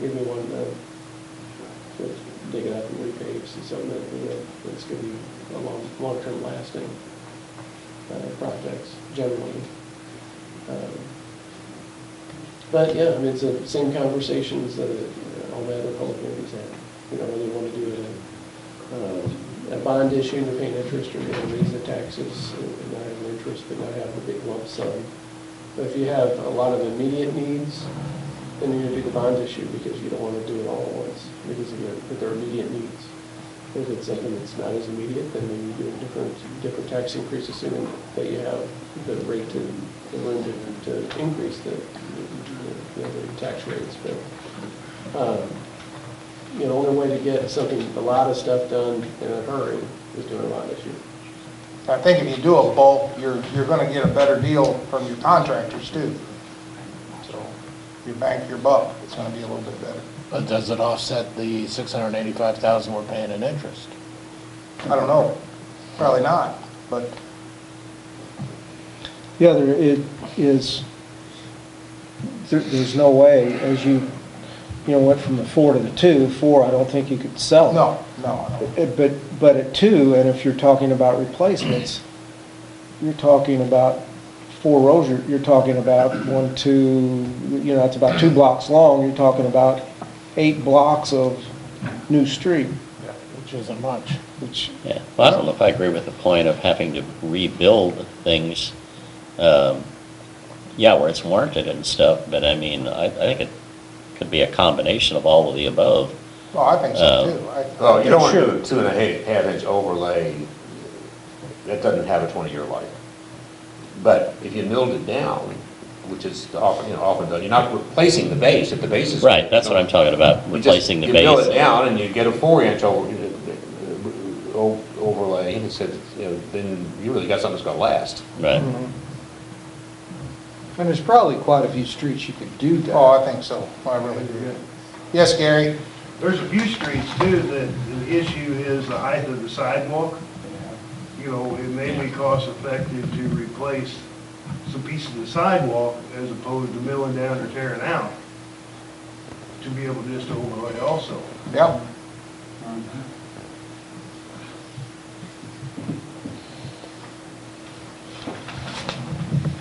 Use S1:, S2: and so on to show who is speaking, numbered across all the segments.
S1: give me one done. So it's dig it up and repave, see something that, you know, that's gonna be a long, long-term lasting, uh, projects generally. Um, But, yeah, I mean, it's the same conversations that uh, all the other public entities have, you know, whether they wanna do it in um, a bond issue to pay interest or you know, raise the taxes and not have an interest, but not have a big lump sum. But if you have a lot of immediate needs, then you're gonna do the bond issue because you don't wanna do it all at once, because of your, with their immediate needs. If it's something that's not as immediate, then maybe you do a different, different tax increase, assuming that you have the rate to, the room to, to increase the, the- the, the tax rates, but, um, you know, the only way to get something, a lot of stuff done in a hurry is doing a lot of issue.
S2: I think if you do a bulk, you're, you're gonna get a better deal from your contractors too. So you bank your buck, it's gonna be a little bit better.
S3: But does it offset the six hundred and eighty-five thousand we're paying in interest?
S2: I don't know, probably not, but
S4: Yeah, there, it is, there, there's no way, as you, you know, went from the four to the two, four, I don't think you could sell.
S2: no, no, I don't.
S4: Uh, But, but at two, and if you're talking about replacements, you're talking about four rows, you're, you're talking about one, two, you know, it's about two blocks long, you're talking about eight blocks of new street,
S3: Which isn't much.
S4: which,
S5: Yeah, well, I don't know if I agree with the point of having to rebuild things, um, yeah, where it's warranted and stuff, but I mean, I, I think it could be a combination of all of the above.
S2: Well, Oh, I think so too.
S6: Well,
S2: I-
S6: oh, you don't want to do a two and a ha- half inch overlay, that doesn't have a twenty-year life. But if you milled it down, which is the often, you know, often done, you're not replacing the base, if the base is.
S5: Right, that's what I'm talking about,
S6: You just-
S5: replacing the
S6: You mill it
S5: base.
S6: down and you get a four-inch over, uh, o- overlay, and it said, you know, then you really got something that's gonna last.
S5: Right,
S7: And there's probably quite a few streets you could do that.
S2: Oh, I think so, I really do. Yes, Gary?
S8: There's a few streets too that the issue is the height of the sidewalk. You know, it may be cost effective to replace some pieces of the sidewalk as opposed to milling down or tearing out to be able just to overlay also.
S2: Yep.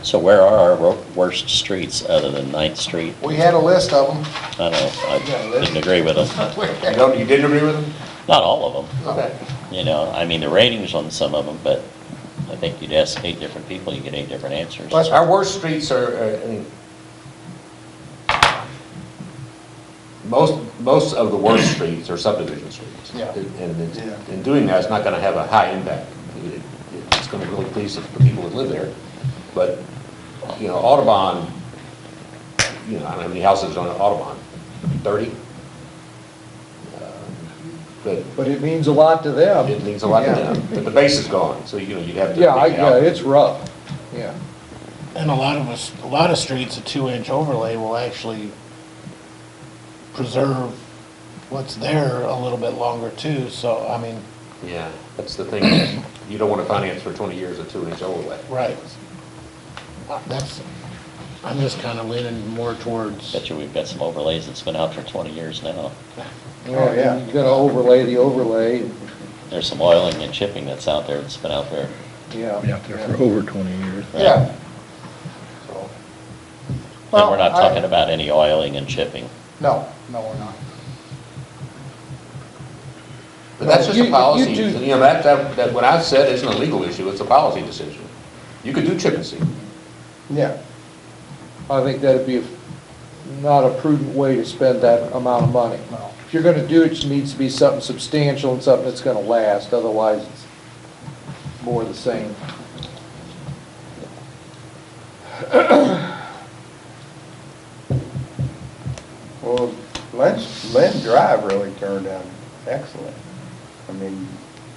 S5: so where are our wor- worst streets other than Ninth Street?
S2: We had a list of them.
S5: I don't know,
S2: Yeah,
S5: I
S2: that's-
S5: didn't agree with them,
S6: You don't, you didn't agree with them?
S5: not all of them,
S6: Okay.
S5: you know, I mean, the ratings on some of them, but I think you'd ask eight different people, you get eight different answers.
S2: Well, that's-
S6: Our worst streets are, are- I mean, most, most of the worst streets are subdivision streets.
S2: Yeah.
S6: And- And, it's-
S2: Yeah.
S6: and doing that is not gonna have a high impact. It- it- It's gonna really please the people that live there. But, you know, Audubon, you know, I don't know how many houses on Audubon, thirty? Uh, But
S7: But it means a lot to them.
S6: it means a lot to
S2: Yeah.
S6: them, but the base is gone, so, you know, you'd have to.
S7: Yeah, I,
S6: dig out.
S7: yeah, it's rough, yeah.
S3: And a lot of us, a lot of streets, a two-inch overlay will actually preserve what's there a little bit longer too, so, I mean,
S6: Yeah, that's the thing, you don't want to finance for 20 years a two-inch overlay.
S3: right. That's, I'm just kind of leaning more towards,
S5: Bet you we've got some overlays that's been out for 20 years now.
S7: Oh, yeah. You gotta overlay the overlay,
S5: There's some oiling and chipping that's out there that's been out there.
S7: yeah.
S4: over 20 years.
S2: Yeah. So,
S5: And
S2: Well,
S5: we're not
S2: I-
S5: talking about any oiling and chipping.
S2: No, no, we're not.
S6: But that's just
S2: You-
S6: a
S2: you
S6: policy,
S2: do-
S6: you know, that, that, that what I said isn't a legal issue, it's a policy decision. You could do chip and seal.
S7: Yeah. I think that'd be not a prudent way to spend that amount of money.
S2: No.
S7: If you're gonna do it, it needs to be something substantial and something that's gonna last, otherwise it's more of the same.
S9: Well, Lynn, Lynn Drive really turned out excellent. I mean,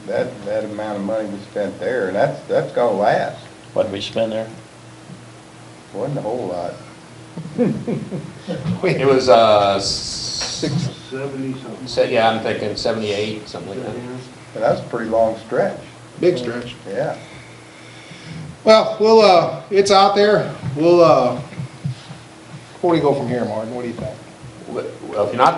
S9: that, that amount of money we spent there, and that's, that's gonna last.
S5: What did we spend there?
S9: Wasn't a whole lot.
S6: It was, uh, six,
S8: Seventy something.
S6: se- yeah, I'm thinking 78, something like that.
S9: And that's a pretty long stretch,
S2: Big stretch.
S9: yeah.
S2: Well, we'll, uh, it's out there. We'll, uh, where do you go from here, Martin? What do you think?
S6: Well, if you're not